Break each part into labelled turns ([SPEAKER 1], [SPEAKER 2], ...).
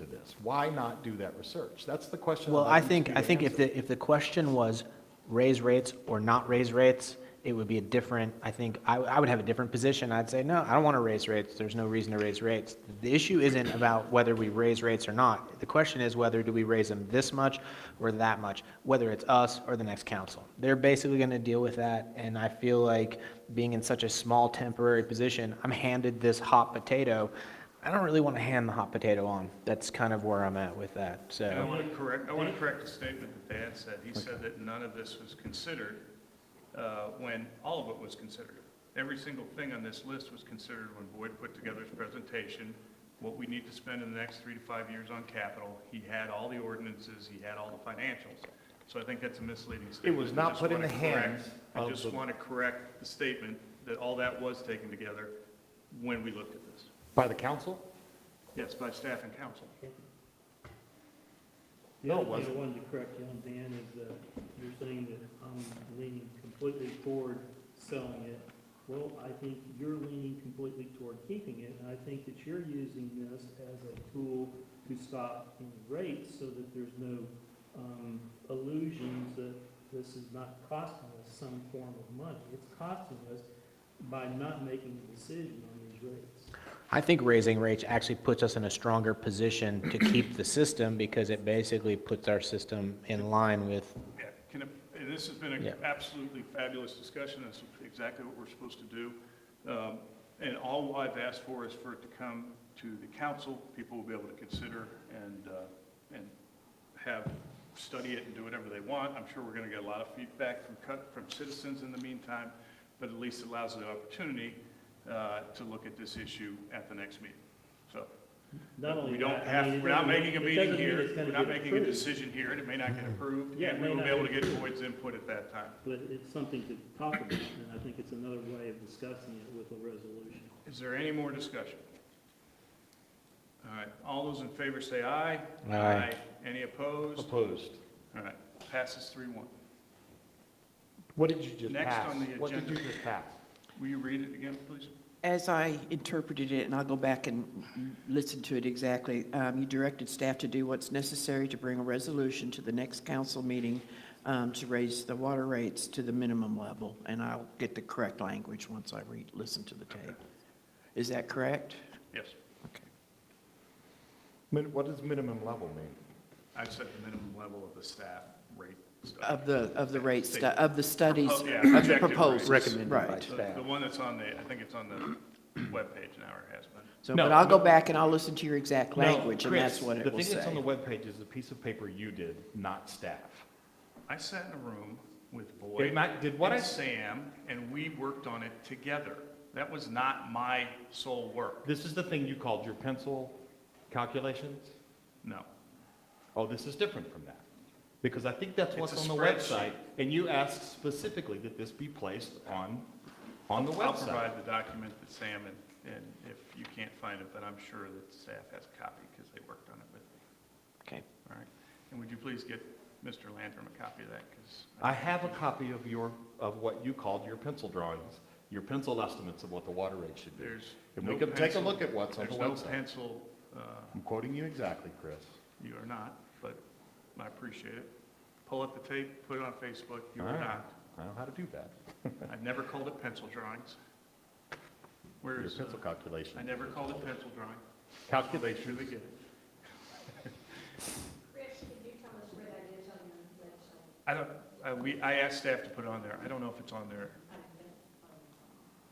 [SPEAKER 1] records. Why not do that research? That's the question.
[SPEAKER 2] Well,
[SPEAKER 1] that
[SPEAKER 2] I
[SPEAKER 1] needs to
[SPEAKER 2] think,
[SPEAKER 1] be
[SPEAKER 2] I think if
[SPEAKER 1] answered.
[SPEAKER 2] the, if the question was raise rates or not raise rates, it would be a different, I think, I, I would have a different position. I'd say, no, I don't want to raise rates. There's no reason to raise rates. The issue isn't about whether we raise rates or not. The question is whether do we raise them this much or that much, whether it's us or the next council. They're basically going to deal with that, and I feel like being in such a small temporary position, I'm handed this hot potato. I don't really want to hand the hot potato on. That's kind of where I'm at with that, so.
[SPEAKER 3] And I want to correct, I want to correct a statement that Dan said. He said that none of this was considered, uh, when all of it was considered. Every single thing on this list was considered when Boyd put together his presentation, what we need to spend in the next three to five years on capital. He had all the ordinances, he had all the financials. So I think that's a misleading statement.
[SPEAKER 1] was
[SPEAKER 3] I
[SPEAKER 1] not
[SPEAKER 3] just
[SPEAKER 1] put in
[SPEAKER 3] wanna
[SPEAKER 1] the
[SPEAKER 3] correct-
[SPEAKER 1] hands
[SPEAKER 3] I
[SPEAKER 1] of
[SPEAKER 3] just
[SPEAKER 1] the-
[SPEAKER 3] want to correct the statement that all that was taken together when we looked at this.
[SPEAKER 1] By the council?
[SPEAKER 3] Yes, by staff and council.
[SPEAKER 1] No, it
[SPEAKER 4] The other thing
[SPEAKER 1] wasn't.
[SPEAKER 4] I wanted to correct you on, Dan, is that you're saying that I'm leaning completely toward selling it. Well, I think you're leaning completely toward keeping it, and I think that you're using this as a tool to stop any rates so that there's no um, illusions that this is not costing us some form of money. It's costing us by not making a decision on these rates.
[SPEAKER 2] I think raising rates actually puts us in a stronger position to keep the system because it basically puts our system in line with,
[SPEAKER 3] Yeah, can, I- and this has been
[SPEAKER 2] Yeah.
[SPEAKER 3] an absolutely fabulous discussion, that's exactly what we're supposed to do. Um, And all I've asked for is for it to come to the council, people will be able to consider and, uh, and have, study it and do whatever they want. I'm sure we're gonna get a lot of feedback from, cut- from citizens in the meantime, but at least it allows the opportunity uh, to look at this issue at the next meeting. So,
[SPEAKER 4] Not only
[SPEAKER 3] we don't
[SPEAKER 4] that, I
[SPEAKER 3] have,
[SPEAKER 4] mean, it
[SPEAKER 3] we're not
[SPEAKER 4] doesn't mean-
[SPEAKER 3] making a
[SPEAKER 4] it
[SPEAKER 3] meeting
[SPEAKER 4] doesn't mean
[SPEAKER 3] here,
[SPEAKER 4] it's gonna
[SPEAKER 3] we're not
[SPEAKER 4] get
[SPEAKER 3] making a
[SPEAKER 4] approved. Mm-hmm.
[SPEAKER 3] decision here, and it may not get approved,
[SPEAKER 4] Yeah, it
[SPEAKER 3] and
[SPEAKER 4] may
[SPEAKER 3] we will
[SPEAKER 4] not
[SPEAKER 3] be able to
[SPEAKER 4] get
[SPEAKER 3] get Boyd's input at that time.
[SPEAKER 4] But it's something to talk about, and I think it's another way of discussing it with a resolution.
[SPEAKER 3] Is there any more discussion? All right, all those in favor say aye.
[SPEAKER 2] Aye.
[SPEAKER 3] Any opposed?
[SPEAKER 1] Opposed.
[SPEAKER 3] All right, passes three one.
[SPEAKER 1] What did you just
[SPEAKER 3] Next
[SPEAKER 1] pass?
[SPEAKER 3] on the
[SPEAKER 1] What did you
[SPEAKER 3] agenda.
[SPEAKER 1] just pass?
[SPEAKER 3] Will you read it again, please?
[SPEAKER 5] As I interpreted it, and I'll go back and listen to it exactly, um, you directed staff to do what's necessary to bring a resolution to the next council meeting um, to raise the water rates to the minimum level, and I'll get the correct language once I read, listen to the tape. Is that correct?
[SPEAKER 3] Yes,
[SPEAKER 5] Okay.
[SPEAKER 1] Min- What does minimum level mean?
[SPEAKER 3] I've set the minimum level of the staff rate stuff.
[SPEAKER 5] Of the, of the rate, stu- of the studies,
[SPEAKER 3] Oh, yeah,
[SPEAKER 5] of the
[SPEAKER 3] projected rates.
[SPEAKER 5] proposals.
[SPEAKER 3] Recommended
[SPEAKER 5] Right.
[SPEAKER 3] The the one that's on the, I think it's on the webpage now, or has been.
[SPEAKER 5] So,
[SPEAKER 1] No,
[SPEAKER 5] but I'll go
[SPEAKER 1] no.
[SPEAKER 5] back and I'll listen to your exact
[SPEAKER 1] No,
[SPEAKER 5] language, and
[SPEAKER 1] Chris,
[SPEAKER 5] that's what it will
[SPEAKER 1] The thing that's on the
[SPEAKER 5] say.
[SPEAKER 1] webpage is a piece of paper you did, not staff.
[SPEAKER 3] I sat in a room with
[SPEAKER 1] Did
[SPEAKER 3] Boyd
[SPEAKER 1] my- did what I-
[SPEAKER 3] and Sam, and we worked on it together. That was not my sole work,
[SPEAKER 1] This is the thing you called your pencil calculations?
[SPEAKER 3] no.
[SPEAKER 1] Oh, this is different from that. Because I think that's what's
[SPEAKER 3] It's a
[SPEAKER 1] on the
[SPEAKER 3] spreadsheet.
[SPEAKER 1] website. And you asked specifically that this be placed on, on the
[SPEAKER 3] I'll
[SPEAKER 1] website.
[SPEAKER 3] provide the document that Sam and, and if you can't find it, but I'm sure that staff has a copy because they worked on it with me,
[SPEAKER 5] Okay.
[SPEAKER 3] all right? And would you please get Mr. Landrum a copy of that, because
[SPEAKER 1] I have a copy of your, of what you called your pencil drawings, your pencil estimates of what the water rate should be.
[SPEAKER 3] there's
[SPEAKER 1] And we
[SPEAKER 3] no
[SPEAKER 1] can take a
[SPEAKER 3] pencil-
[SPEAKER 1] look at what's on the
[SPEAKER 3] There's no
[SPEAKER 1] website.
[SPEAKER 3] pencil, uh,
[SPEAKER 1] I'm quoting you exactly, Chris.
[SPEAKER 3] you are not, but I appreciate it. Pull up the tape, put it on Facebook, you
[SPEAKER 1] All
[SPEAKER 3] are
[SPEAKER 1] right.
[SPEAKER 3] not.
[SPEAKER 1] I know how to do that.
[SPEAKER 3] I've never called it pencil drawings. Where
[SPEAKER 1] Your
[SPEAKER 3] is, uh,
[SPEAKER 1] pencil calculation.
[SPEAKER 3] I never called it pencil drawing.
[SPEAKER 1] Calculation.
[SPEAKER 3] Truly get it.
[SPEAKER 6] Rich, could you tell us where that is on your website?
[SPEAKER 3] I don't, I, we, I asked staff to put it on there. I don't know if it's on there.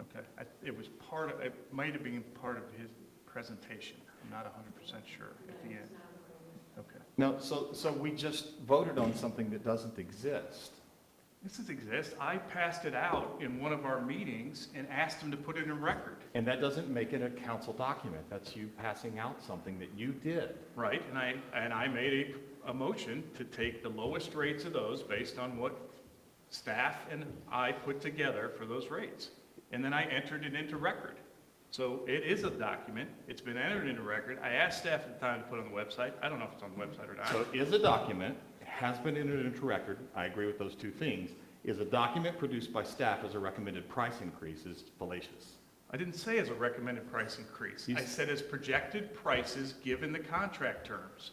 [SPEAKER 3] Okay, I, it was part of, it might have been part of his presentation. I'm not hundred percent sure at the end. Okay.
[SPEAKER 1] No, so, so we just voted on something that doesn't exist.
[SPEAKER 3] This is exist. I passed it out in one of our meetings and asked them to put it in record,
[SPEAKER 1] And that doesn't make it a council document. That's you passing out something that you did.
[SPEAKER 3] right? And I, and I made a, a motion to take the lowest rates of those based on what staff and I put together for those rates. And then I entered it into record. So it is a document, it's been entered into record. I asked staff at the time to put it on the website. I don't know if it's on the website or
[SPEAKER 1] So
[SPEAKER 3] not.
[SPEAKER 1] it is a document, has been entered into record, I agree with those two things, is a document produced by staff as a recommended price increase is fallacious.
[SPEAKER 3] I didn't say as a recommended price increase.
[SPEAKER 1] You
[SPEAKER 3] I
[SPEAKER 1] s-
[SPEAKER 3] said as projected prices given the contract terms.